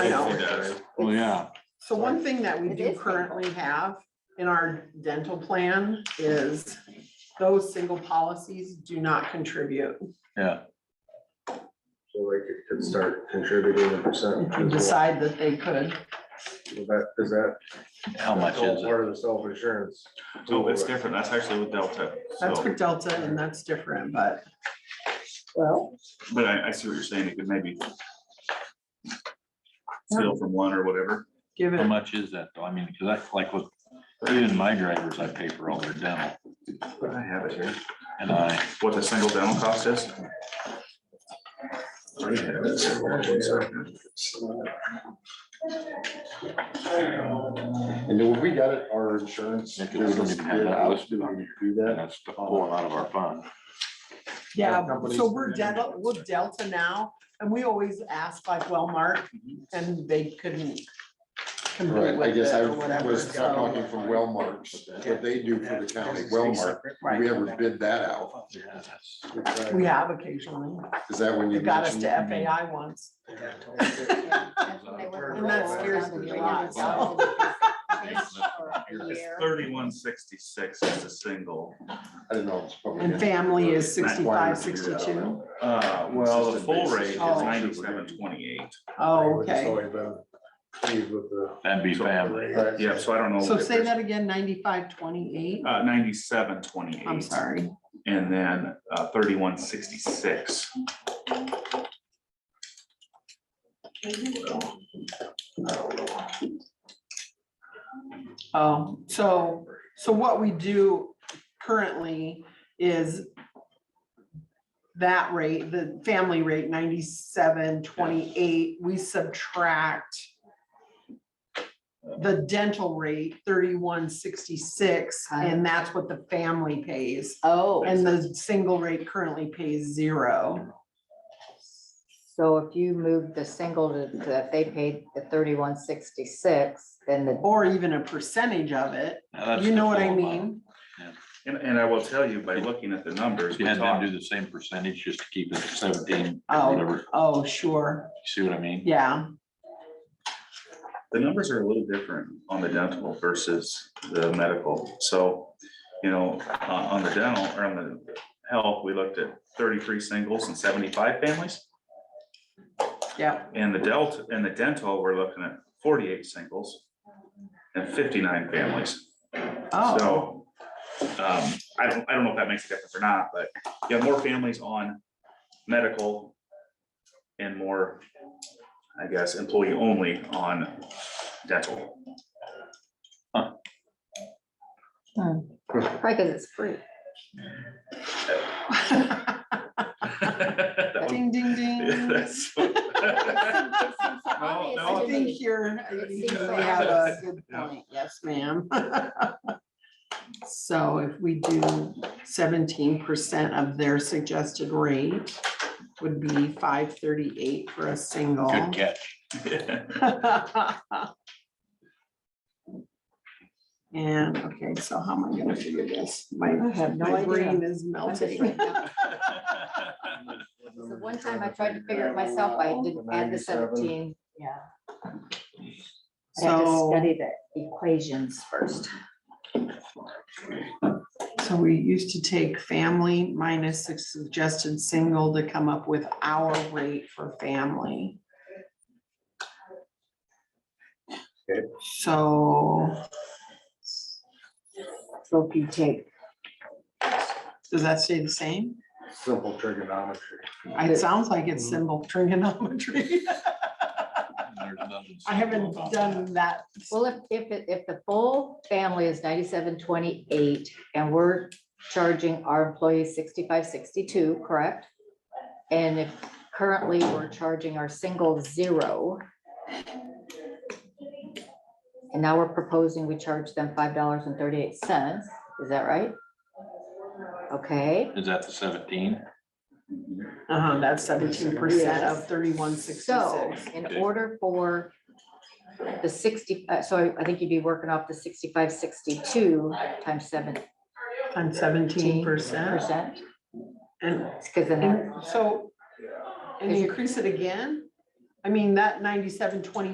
I know. It does. Well, yeah, So one thing that we It do is currently have in our dental plan is those single policies do not contribute. yeah. So like it could start contributing a percent. If you as well. decide that they could, Is that, is that? How much that's all is it? Oh, Part of the self-insurance. No, it's different. That's actually with Delta. that's So, for Delta and that's different, but Well, but I, I see what you're saying. It could maybe steal from one or whatever. give How it, much is that though? I mean, cause I, like with, even my drivers, I pay for all their dental I have it here. and I, What the single dental cost is? I have it. So, hold on one second. And then when we got it, our insurance. Yeah, 'cause we don't even have that listed on Do and that. that's pulling out of our fund. yeah, companies- so we're Delta, we're Delta now, and we always ask like Wellmark, and they couldn't compete Mhm. Right, I with guess it I or whatever, was talking so, from Wellmarks, what they do for the county, Wellmark, did we right, ever bid that out? Yeah, that's- we have occasionally, Is that when you? it got us to mentioned- FAI once. yeah, that's what they were. And that scares me a lot, so. For a It's year. thirty-one sixty-six is a single. I didn't know. it's probably- And family is Why sixty-five, would you do that? sixty-two. Uh, well, the full rate is Oh. ninety-seven twenty-eight. Oh, okay. Pleased with the. That'd be family. Right. Yeah, so I don't know. So if say there's- that again, ninety-five, twenty-eight? Uh, ninety-seven twenty-eight. I'm sorry. And then uh, thirty-one sixty-six. Oh, so, so what we do currently is that rate, the family rate ninety-seven, twenty-eight, we subtract the dental rate thirty-one, sixty-six, and that's what the family pays. Oh, And the single rate currently pays zero. so if you move the single to, to- if they paid the thirty-one sixty-six, then the, or even a percentage of it. Now, that's You know the what I full amount. mean? And, and I will tell you by looking at the numbers, If you we had them talked, do the same percentage, just to keep it seventeen, or whatever, Oh, you oh, sure. see what I mean? Yeah, the numbers are a little different on the dental versus the medical. So, you know, on, on the dental or on the health, we looked at thirty-three singles and seventy-five families. yeah. And the delta, and the dental, we're looking at forty-eight singles and fifty-nine families. Oh, So, um, I don't, I don't know if that makes a difference or not, but you have more families on medical and more, I guess, employee only on dental. Hmm. probably because it's free. Oh. That was- ding, ding, ding. That's- Obviously, no, I I think you're, It you seems really like- have a good Yeah. point. Yes, ma'am. So if we do seventeen percent of their suggested rate would be five thirty-eight for a single. Good catch. And, okay, so how am I gonna figure this? My, I have no my idea. brain is I'm just melting. right now- so One time I tried to figure it myself, I didn't add the 97. seventeen, yeah. I had to So, study the equations first. so we used to take family minus the suggested single to come up with our rate for family. Okay. So, So if you take, does that stay the same? Simple trigonometry. It sounds like it's symbol trigonometry. There's nothing I haven't simple about that. done that. well, if, if, it- if the full family is ninety-seven twenty-eight and we're charging our employees sixty-five sixty-two, correct? And if currently we're charging our single zero. And now we're proposing we charge them five dollars and thirty-eight cents, is that right? Okay. Is that the seventeen? Uh-huh, that's seventeen percent of thirty-one So sixty-six. in Okay. order for the sixty, uh, so I- I think you'd be working off the sixty-five, sixty-two times seventeen And seventeen percent. percent. And, Because then, that- and so, and increase it again? I mean, that ninety-seven twenty